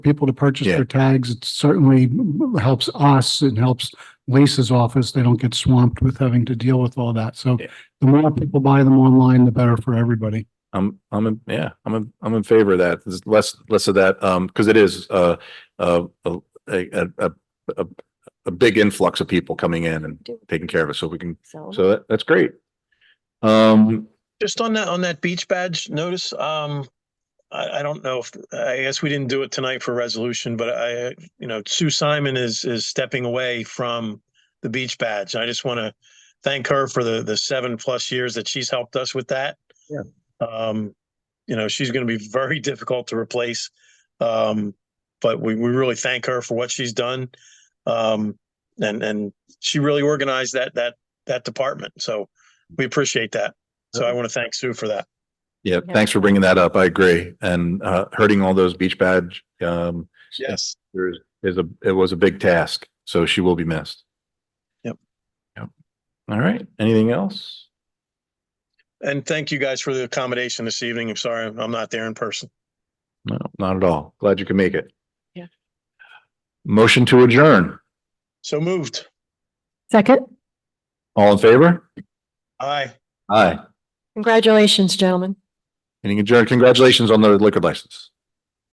people to purchase Yeah. their tags. It certainly helps us. It helps Lisa's office. They don't get swamped with having to deal with all that. So Yeah. the more people buy them online, the better for everybody. I'm, I'm, in- yeah, I'm, in- I'm in favor of that. There's less, less of that, um, because it is, uh, uh, a, a, a, a, a big influx of people coming in and taking care of it. So we can, So, so that, that's great. Um, Just on that, on that beach badge notice, um, I, I don't know if, I guess we didn't do it tonight for resolution, but I, uh, you know, Sue Simon is, is stepping away from the beach badge. I just want to thank her for the, the seven plus years that she's helped us with that. Yeah. Um, you know, she's going to be very difficult to replace. Um, but we, we really thank her for what she's done. Um, and, and she really organized that, that, that department. So we appreciate that. So I want to thank Sue for that. yeah, Yeah. thanks for bringing that up. I agree. And, uh, hurting all those beach badge, um, Yes. there's, is a, it was a big task. So she will be missed. Yep. Yep. All right. Anything else? And thank you guys for the accommodation this evening. I'm sorry, I'm not there in person. No, not at all. Glad you can make it. Yeah. Motion to adjourn. So moved. second, All in favor? Aye. Aye. congratulations, gentlemen. Meeting adjourned. Congratulations on the liquor license.